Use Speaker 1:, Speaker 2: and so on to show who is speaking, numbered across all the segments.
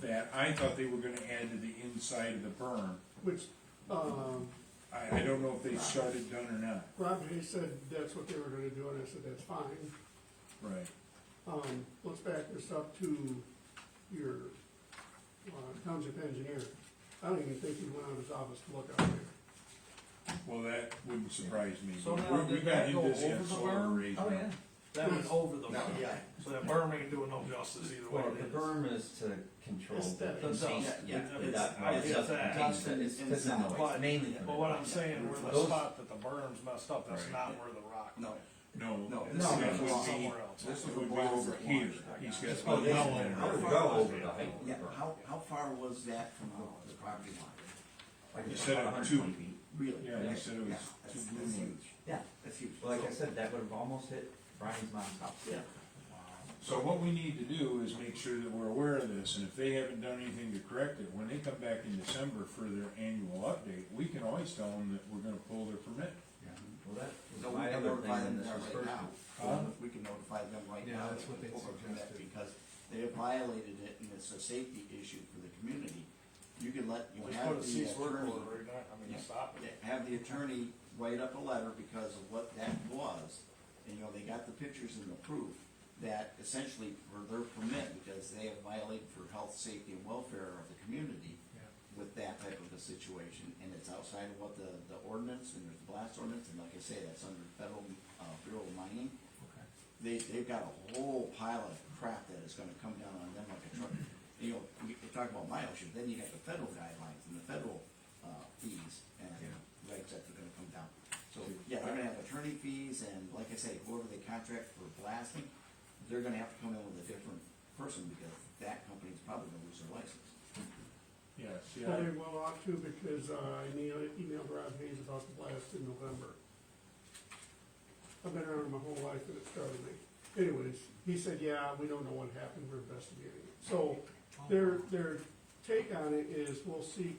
Speaker 1: that, I thought they were gonna add to the inside of the berm.
Speaker 2: which, um,
Speaker 1: I, I don't know if they shut it down or not.
Speaker 2: Rob Hay said that's what they were gonna do, and I said, that's fine.
Speaker 1: Right.
Speaker 2: Um, let's back this up to your uh, township engineer. I don't even think he went out of his office to look out there.
Speaker 1: Well, that wouldn't surprise me.
Speaker 3: So now,
Speaker 1: We're- we
Speaker 3: did
Speaker 1: got
Speaker 3: that
Speaker 1: into
Speaker 3: go over
Speaker 1: this, yeah,
Speaker 3: the
Speaker 1: solar
Speaker 3: berm? Oh,
Speaker 1: arrays now.
Speaker 3: That went over the
Speaker 4: No.
Speaker 3: berm.
Speaker 4: Yeah.
Speaker 3: So that berm ain't doing no justice either way.
Speaker 5: Well,
Speaker 3: it
Speaker 5: the
Speaker 3: is.
Speaker 5: berm is to control the
Speaker 2: Aesthetic.
Speaker 5: the dust.
Speaker 4: Yeah,
Speaker 5: The dust-
Speaker 3: I
Speaker 5: well, it
Speaker 3: get
Speaker 5: doesn't
Speaker 3: that.
Speaker 5: contain the- it's
Speaker 4: Dust
Speaker 5: because of
Speaker 4: and-
Speaker 5: noise,
Speaker 3: But-
Speaker 5: mainly. from
Speaker 3: But
Speaker 5: the
Speaker 3: what
Speaker 5: noise.
Speaker 3: I'm saying, where the
Speaker 5: Those-
Speaker 3: spot that the berm's messed up, that's
Speaker 1: Right.
Speaker 3: not where the rock.
Speaker 4: No,
Speaker 1: No.
Speaker 4: No,
Speaker 1: this
Speaker 4: this
Speaker 1: would
Speaker 4: is
Speaker 1: be-
Speaker 3: somewhere else.
Speaker 1: This
Speaker 4: This
Speaker 1: would
Speaker 4: is
Speaker 1: be over
Speaker 4: blocks of
Speaker 1: here,
Speaker 4: lines.
Speaker 1: he's got.
Speaker 5: Oh,
Speaker 1: some
Speaker 5: they-
Speaker 1: yellow in
Speaker 5: I would
Speaker 1: there.
Speaker 5: go over the height of the
Speaker 4: yeah,
Speaker 5: berm,
Speaker 4: how, how far was that from the- the property line?
Speaker 5: like
Speaker 1: You said
Speaker 5: about
Speaker 1: it two.
Speaker 5: 120 feet.
Speaker 4: Really?
Speaker 1: Yeah, you said it
Speaker 4: Yeah,
Speaker 1: was
Speaker 4: that's,
Speaker 1: too
Speaker 4: that's
Speaker 1: gloomy.
Speaker 4: huge. Yeah, that's huge.
Speaker 5: Well, Like I
Speaker 4: So-
Speaker 5: said, that would have almost hit Brian's mom's house.
Speaker 4: Yeah.
Speaker 1: So what we need to do is make sure that we're aware of this, and if they haven't done anything to correct it, when they come back in December for their annual update, we can always tell them that we're gonna pull their permit.
Speaker 5: Well, that
Speaker 4: So
Speaker 5: was
Speaker 4: we
Speaker 5: my
Speaker 4: can
Speaker 5: other thing
Speaker 4: notify
Speaker 5: when
Speaker 4: them
Speaker 5: this
Speaker 4: now
Speaker 5: was
Speaker 4: right
Speaker 5: first.
Speaker 4: now.
Speaker 1: Huh?
Speaker 4: We can notify them right
Speaker 6: Yeah,
Speaker 4: now.
Speaker 6: that's what
Speaker 4: that
Speaker 6: they
Speaker 4: we're doing that
Speaker 6: suggested.
Speaker 4: Because they have violated it and it's a safety issue for the community. You can let, you
Speaker 3: Just put a
Speaker 4: have the
Speaker 3: cease work order
Speaker 4: attorney,
Speaker 3: right now, I mean,
Speaker 4: Yeah.
Speaker 3: stop it.
Speaker 4: yeah, have the attorney write up a letter because of what that was. And, you know, they got the pictures and the proof that essentially for their permit, because they have violated for health, safety and welfare of the community with that type of a situation, and it's outside of what the, the ordinance, and there's the blast ordinance, and like I say, that's under federal, uh, Bureau of Mining. They, they've got a whole pile of crap that is gonna come down on them like a truck. You know, you you talk about mileage, then you got the federal guidelines and the federal, uh, fees and rights that are gonna come down. So, yeah, they're gonna have attorney fees, and like I say, whoever they contract for blasting, they're gonna have to come in with a different person, because that company's probably gonna lose their license.
Speaker 1: Yes, yeah,
Speaker 2: Well, they well ought to, because uh, I emailed emailed Rob Hayes about the blast in November. I've been around my whole life and it started me. Anyways, he said, yeah, we don't know what happened, we're investigating it. So their, their take on it is we'll seek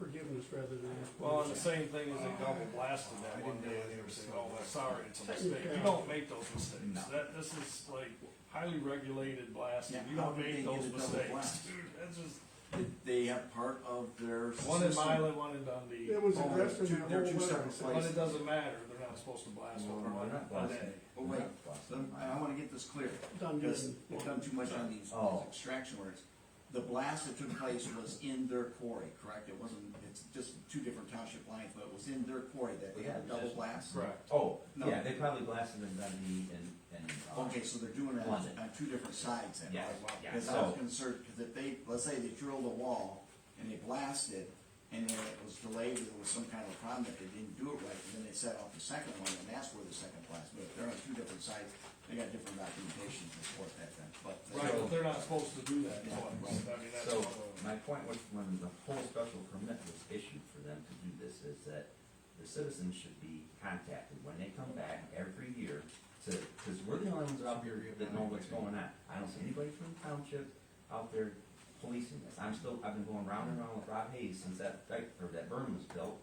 Speaker 2: forgiveness rather than.
Speaker 3: Well, and the same thing as they double blasted that one day, and they were saying, oh, well, sorry, it's a mistake. You don't make those mistakes.
Speaker 4: No.
Speaker 3: That, this is like highly regulated blasting.
Speaker 4: Yeah,
Speaker 3: You
Speaker 4: how
Speaker 3: don't
Speaker 4: did they get
Speaker 3: make those
Speaker 4: a double
Speaker 3: mistakes.
Speaker 4: blast?
Speaker 3: Dude, that's just,
Speaker 4: They have part of their.
Speaker 3: one in
Speaker 4: system-
Speaker 3: Milan, one in Dundee.
Speaker 2: It was
Speaker 4: Oh,
Speaker 2: addressed in that whole
Speaker 4: two- they're two
Speaker 2: letter.
Speaker 4: separate
Speaker 3: But it
Speaker 4: places.
Speaker 3: doesn't matter, they're not supposed to blast
Speaker 5: Well,
Speaker 3: over
Speaker 5: we're
Speaker 3: one,
Speaker 5: not
Speaker 3: one
Speaker 5: blasting.
Speaker 3: day.
Speaker 4: Oh,
Speaker 5: We're
Speaker 4: wait,
Speaker 5: not blasting.
Speaker 4: Let- I wanna get this clear,
Speaker 2: Done,
Speaker 4: because
Speaker 2: done.
Speaker 4: they've done too much on these
Speaker 5: Oh.
Speaker 4: extraction words. The blast that took place was in their quarry, correct? It wasn't, it's just two different township lines, but it was in their quarry that they had a double blast?
Speaker 3: Correct.
Speaker 5: Oh,
Speaker 4: No.
Speaker 5: yeah, they probably blasted in Dundee and, and. uh,
Speaker 4: Okay, so they're doing it on,
Speaker 5: London.
Speaker 4: on two different sides then?
Speaker 5: Yeah,
Speaker 4: right?
Speaker 5: yeah,
Speaker 4: Cause I was
Speaker 5: so-
Speaker 4: concerned, cause if they, let's say they drilled a wall and they blasted and then it was delayed, there was some kind of problem that they didn't do it right, and then they set off the second one and that's where the second blast, but if they're on two different sides, they got different documentation to support that then, but.
Speaker 3: Right, but they're not supposed to do that twice. I mean, that's one
Speaker 5: So,
Speaker 3: of them.
Speaker 5: my point was, when the whole special permit was issued for them to do this, is that the citizens should be contacted when they come back every year to, because we're the only ones out here that know what's going on. I don't see anybody from the township out there policing this. I'm still, I've been going round and round with Rob Hayes since that, dike- or that berm was built.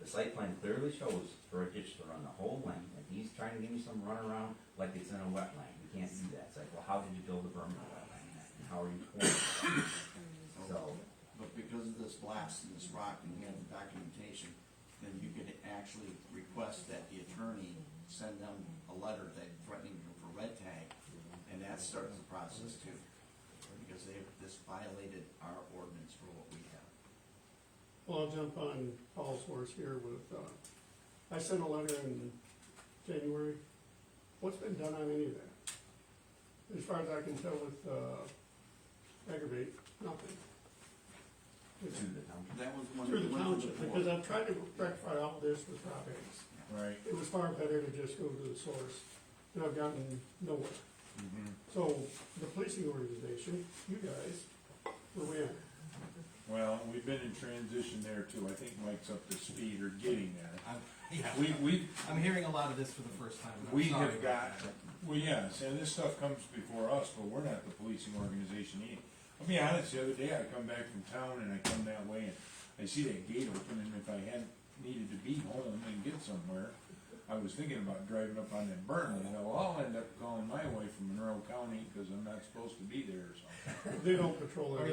Speaker 5: The site plan clearly shows for a ditch to run the whole length, and he's trying to give me some runaround like it's in a wetland. We can't do that. It's like, well, how did you build a berm in a wetland? And how are you pouring? it? So,
Speaker 4: But because of this blast and this rock and we have the documentation, then you could actually request that the attorney send them a letter that threatening you for red tag, and that starts the process too. Because they, this violated our ordinance for what we have.
Speaker 2: Well, I'll jump on Paul's horse here with, uh, I sent a letter in January. What's been done on any of that? As far as I can tell with, uh, aggravate, nothing. It's
Speaker 5: to the township.
Speaker 4: That was one.
Speaker 2: Through the
Speaker 4: one for
Speaker 2: township,
Speaker 4: the
Speaker 2: because
Speaker 4: board.
Speaker 2: I've tried to rectify all of this with Rob Hayes.
Speaker 1: right.
Speaker 2: It was far better to just go to the source, and I've gotten nowhere.
Speaker 1: Mhm.
Speaker 2: So, the policing organization, you guys, were we at?
Speaker 1: Well, we've been in transition there too, I think Mike's up to speed or getting there. We, we,
Speaker 6: I'm hearing a lot of this for the first time. and I'm
Speaker 1: we
Speaker 6: sorry
Speaker 1: have got,
Speaker 6: about that.
Speaker 1: well, yes, and this stuff comes before us, but we're not the policing organization either. I'll be honest, the other day I come back from town and I come that way and I see that gate open and if I hadn't needed to be home and get somewhere, I was thinking about driving up on that burn, and I'll end up calling my wife from Monroe County because I'm not supposed to be there or something.
Speaker 2: They don't patrol that.